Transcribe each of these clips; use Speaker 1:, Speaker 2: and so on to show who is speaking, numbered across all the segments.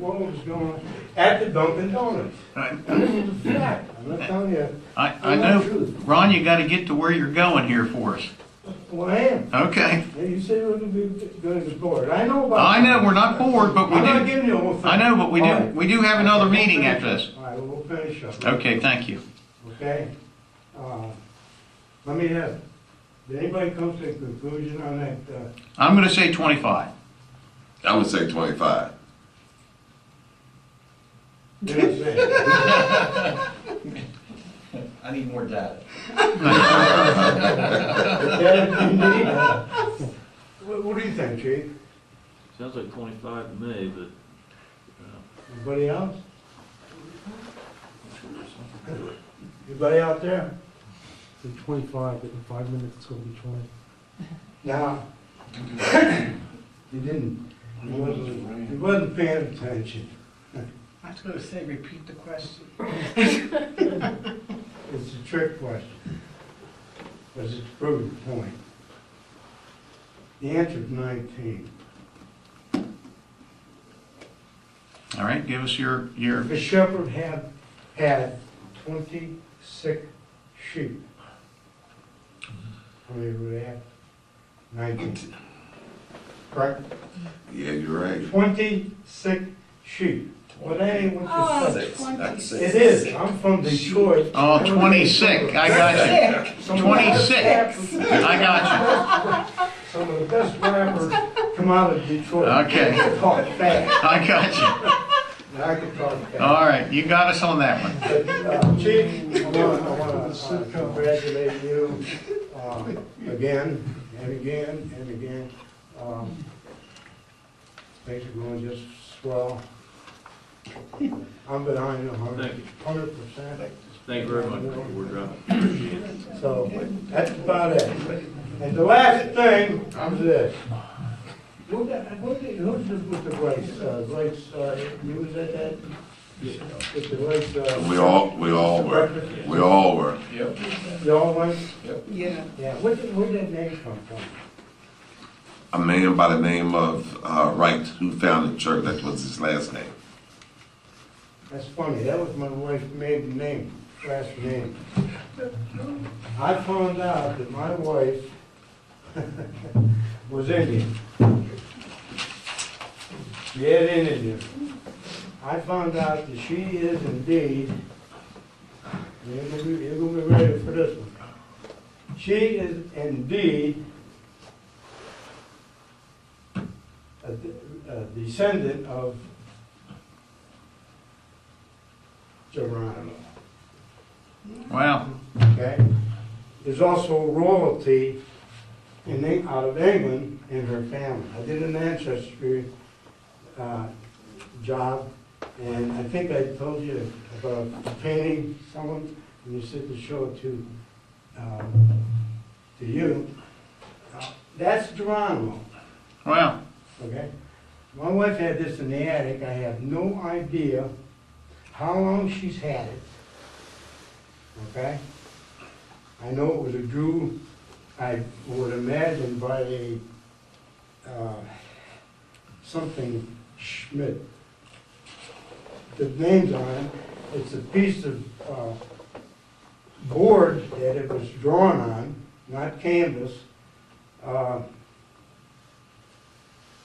Speaker 1: what was going on at the Dunkin' Donuts.
Speaker 2: I,
Speaker 1: And this is a fact, I'm not telling you,
Speaker 2: I I know, Ron, you gotta get to where you're going here for us.
Speaker 1: well, I am.
Speaker 2: Okay.
Speaker 1: Yeah, You say we're gonna be good as board, I know about.
Speaker 2: I know, we're not bored, but we
Speaker 1: I'm not
Speaker 2: do,
Speaker 1: giving you a whole thing.
Speaker 2: I know, but we
Speaker 1: All
Speaker 2: do,
Speaker 1: right.
Speaker 2: we do have another meeting after this.
Speaker 1: All right, we'll finish up.
Speaker 2: Okay, thank you.
Speaker 1: Okay? Uh, Let me ask, did anybody come to a conclusion on that, uh,
Speaker 2: I'm gonna say twenty-five.
Speaker 3: I would say twenty-five.
Speaker 1: did I say?
Speaker 4: I need more data.
Speaker 1: Yeah, you need, uh, What, what do you think, chief?
Speaker 5: Sounds like twenty-five to me, but
Speaker 1: Anybody else? Anybody out there?
Speaker 6: Say twenty-five, but in five minutes it's gonna be twenty.
Speaker 1: No. He didn't, he wasn't, he wasn't paying attention.
Speaker 7: I was gonna say, repeat the question.
Speaker 1: It's a trick question. Because it's proven point. The answer's nineteen.
Speaker 2: All right, give us your, your,
Speaker 1: The shepherd had, had twenty-six sheep. How many were there? Nineteen. Correct?
Speaker 3: Yeah, you're right.
Speaker 1: Twenty-six sheep. Well, that ain't
Speaker 3: Oh.
Speaker 1: what you said.
Speaker 3: Six, not
Speaker 1: It
Speaker 3: six.
Speaker 1: is, I'm from Detroit.
Speaker 2: oh, twenty-six, I got you. Twenty-six, I got
Speaker 1: Some of the best rappers come out of Detroit.
Speaker 2: Okay.
Speaker 1: I can talk
Speaker 2: you,
Speaker 1: fast,
Speaker 2: I got you.
Speaker 1: and I can talk fast.
Speaker 2: All right, you got us on that one.
Speaker 1: But, uh, Chief, I want to congratulate you uh, again and again and again. Um, Things are going just swell. I'm behind you a
Speaker 5: Thank
Speaker 1: hundred,
Speaker 5: you.
Speaker 1: hundred percent.
Speaker 5: thank you very much, Mr. Woodruff.
Speaker 1: So that's about it. And the last thing is this. Who the- who the- Who's this with the rights, uh, rights, uh, you was at that? With the rights, uh.
Speaker 3: We all, we all were, we all were.
Speaker 4: Yep.
Speaker 1: Y'all went?
Speaker 7: Yeah.
Speaker 1: Yeah, where did, where did that name come from?
Speaker 3: A man by the name of, uh, Wright, who founded the church, that was his last name.
Speaker 1: That's funny, that was my wife's maiden name, last name. I found out that my wife was Indian. Yeah, Indian. I found out that she is indeed, you're gonna be, you're gonna be ready for this one. She is indeed a de- a descendant of Geronimo,
Speaker 2: Wow,
Speaker 1: okay? There's also royalty in, Eng- out of England in her family. I did an ancestry, uh, job, and I think I told you about a painting, someone, and you said to show it to, um, to you. Uh, That's Geronimo.
Speaker 2: wow,
Speaker 1: Okay? My wife had this in the attic, I have no idea how long she's had it. Okay? I know it was a Jew, I would imagine by the, uh, something Schmidt. The name's on it, it's a piece of, uh, board that it was drawn on, not canvas. Uh,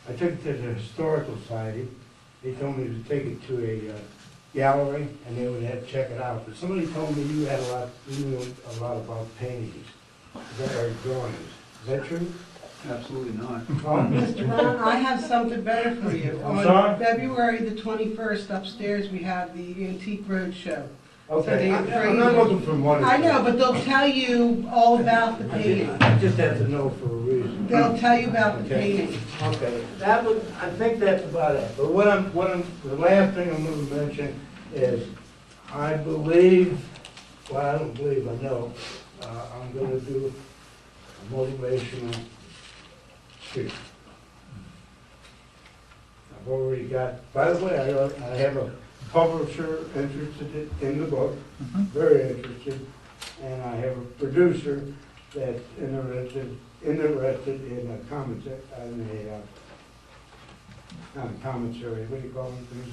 Speaker 1: I took it to the Historical Society. They told me to take it to a uh, gallery and they would have, check it out. But somebody told me you had a lot, you knew a lot about paintings, that are drawings. Is that true?
Speaker 4: Absolutely not.
Speaker 1: Tom?
Speaker 7: Mr. Ron, I have something better for you.
Speaker 1: I'm sorry?
Speaker 7: On February the twenty-first upstairs, we have the Antique Roadshow.
Speaker 1: Okay, I'm I'm not looking for money.
Speaker 7: I know, but they'll tell you all about the
Speaker 1: I ju-
Speaker 7: painting.
Speaker 1: I just have to know for a reason.
Speaker 7: They'll tell you about the
Speaker 1: Okay.
Speaker 7: painting.
Speaker 1: Okay, that was, I think that's about it. But what I'm, what I'm, the last thing I'm gonna mention is, I believe, well, I don't believe, I know, uh, I'm gonna do a motivational speech. I've already got, by the way, I, I have a publisher interested in- in the book, very interested, and I have a producer that's interested, interested in a comment, in a, uh, not a commentary, what do you call them, things